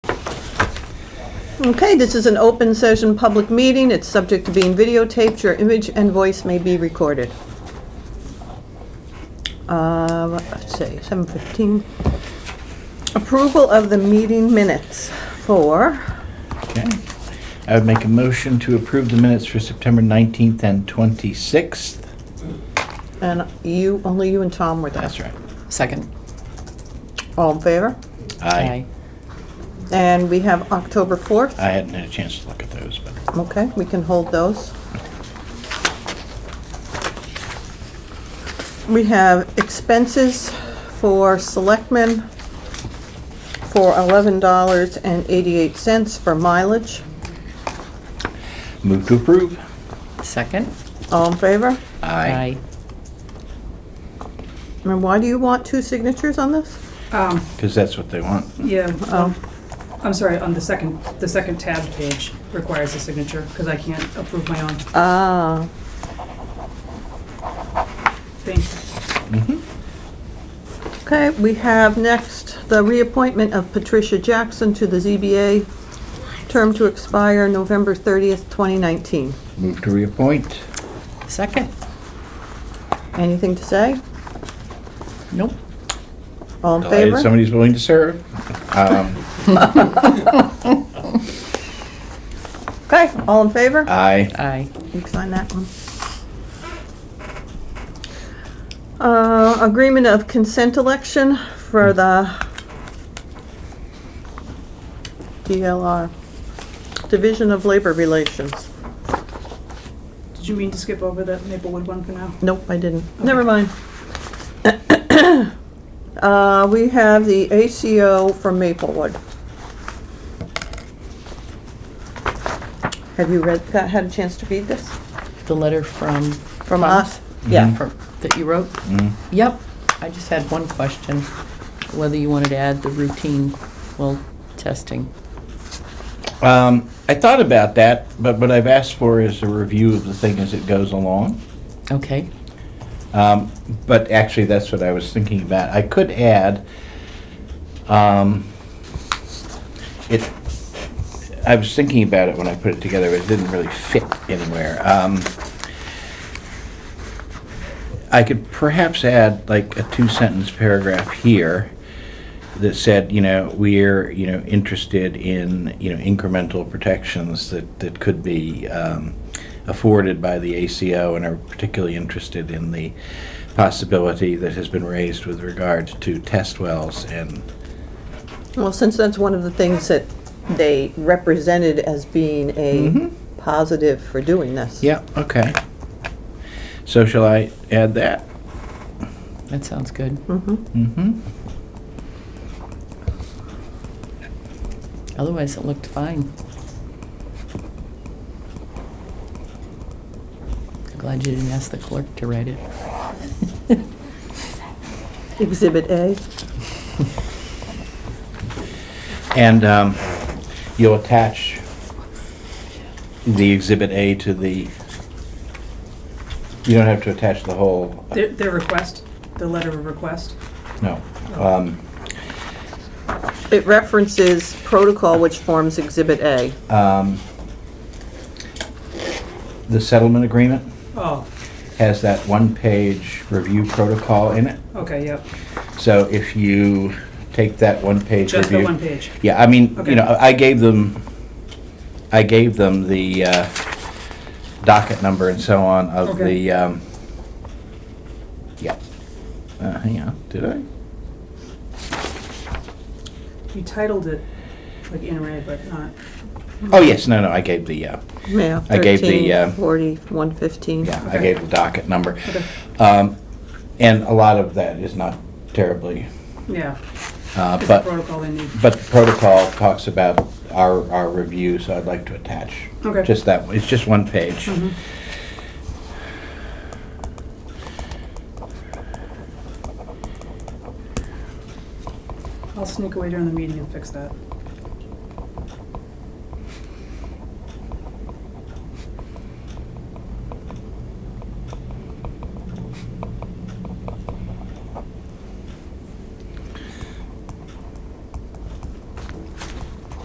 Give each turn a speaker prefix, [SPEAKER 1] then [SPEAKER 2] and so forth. [SPEAKER 1] Okay, this is an open session, public meeting. It's subject to being videotaped. Your image and voice may be recorded. Uh, Let's see, 7:15. Approval of the meeting minutes for,
[SPEAKER 2] Okay. I would make a motion to approve the minutes for September 19th and 26th.
[SPEAKER 1] and you, only you and Tom were there.
[SPEAKER 2] That's right.
[SPEAKER 3] Second.
[SPEAKER 1] All in favor?
[SPEAKER 2] I,
[SPEAKER 1] And we have October 4th.
[SPEAKER 2] I hadn't had a chance to look at those, but
[SPEAKER 1] Okay, we can hold those. We have expenses for selectmen for $11.88 for mileage.
[SPEAKER 2] move to approve.
[SPEAKER 3] Second.
[SPEAKER 1] All in favor?
[SPEAKER 2] Aye.
[SPEAKER 1] And why do you want two signatures on this?
[SPEAKER 4] Um,
[SPEAKER 2] Because that's what they want.
[SPEAKER 4] yeah, um, I'm sorry, on the second, the second tab page requires a signature, because I can't approve my own
[SPEAKER 1] Ah,
[SPEAKER 4] thing.
[SPEAKER 1] okay, we have next the reappointment of Patricia Jackson to the ZBA, term to expire November 30th, 2019.
[SPEAKER 2] Move to reappoint.
[SPEAKER 3] Second.
[SPEAKER 1] Anything to say?
[SPEAKER 3] Nope.
[SPEAKER 1] All in
[SPEAKER 2] Delighted
[SPEAKER 1] favor?
[SPEAKER 2] somebody's willing to serve. Um,
[SPEAKER 1] Okay, all in favor?
[SPEAKER 2] Aye.
[SPEAKER 3] Aye.
[SPEAKER 1] You can sign that one. Uh, agreement of consent election for the DLR, Division of Labor Relations.
[SPEAKER 4] Did you mean to skip over that Maplewood one for now?
[SPEAKER 1] Nope, I didn't. Never mind. Uh, we have the ACO from Maplewood. Have you read, got- had a chance to read this?
[SPEAKER 3] The letter from.
[SPEAKER 1] From us? Yeah.
[SPEAKER 3] from- That you wrote?
[SPEAKER 2] Mm-hmm.
[SPEAKER 3] Yep. I just had one question, whether you wanted to add the routine, well, testing.
[SPEAKER 2] Um, I thought about that, but what I've asked for is a review of the thing as it goes along.
[SPEAKER 3] Okay.
[SPEAKER 2] Um, But actually, that's what I was thinking about. I could add, um, it, I was thinking about it when I put it together, but it didn't really fit anywhere. Um, I could perhaps add like a two-sentence paragraph here that said, you know, we're, you know, interested in, you know, incremental protections that, that could be um, afforded by the ACO and are particularly interested in the possibility that has been raised with regard to test wells and,
[SPEAKER 1] Well, since that's one of the things that they represented as being a positive for doing this.
[SPEAKER 2] Mm-hmm. yeah, okay. So shall I add that?
[SPEAKER 3] That sounds good.
[SPEAKER 2] Mm-hmm.
[SPEAKER 3] Otherwise, it looked fine. Glad you didn't ask the clerk to write it.
[SPEAKER 1] Exhibit A.
[SPEAKER 2] And um, you'll attach the Exhibit A to the, you don't have to attach the whole,
[SPEAKER 4] Their, their request, the letter of request.
[SPEAKER 2] no. Um,
[SPEAKER 1] It references protocol which forms Exhibit A.
[SPEAKER 2] um, The settlement agreement
[SPEAKER 4] Oh,
[SPEAKER 2] has that one-page review protocol in it.
[SPEAKER 4] okay, yep,
[SPEAKER 2] So if you take that one-page review.
[SPEAKER 4] just the one page.
[SPEAKER 2] Yeah, I mean, you
[SPEAKER 4] Okay.
[SPEAKER 2] know, I gave them, I gave them the uh, docket number and so on of
[SPEAKER 4] Okay.
[SPEAKER 2] the, um, yeah. Uh, Hang on, did I?
[SPEAKER 4] You titled it like in red, but not,
[SPEAKER 2] Oh, yes, no, no, I gave the, uh,
[SPEAKER 1] Yeah.
[SPEAKER 2] I gave the, uh,
[SPEAKER 1] 13, 40, 115.
[SPEAKER 2] yeah, I
[SPEAKER 4] Okay.
[SPEAKER 2] gave the docket number. Um, And a lot of that is not terribly,
[SPEAKER 4] yeah,
[SPEAKER 2] uh,
[SPEAKER 4] it's the
[SPEAKER 2] but,
[SPEAKER 4] protocol they need.
[SPEAKER 2] but the protocol talks about our, our review, so I'd like to attach.
[SPEAKER 4] Okay.
[SPEAKER 2] Just that, it's just one page.
[SPEAKER 4] I'll sneak away during the meeting and fix that.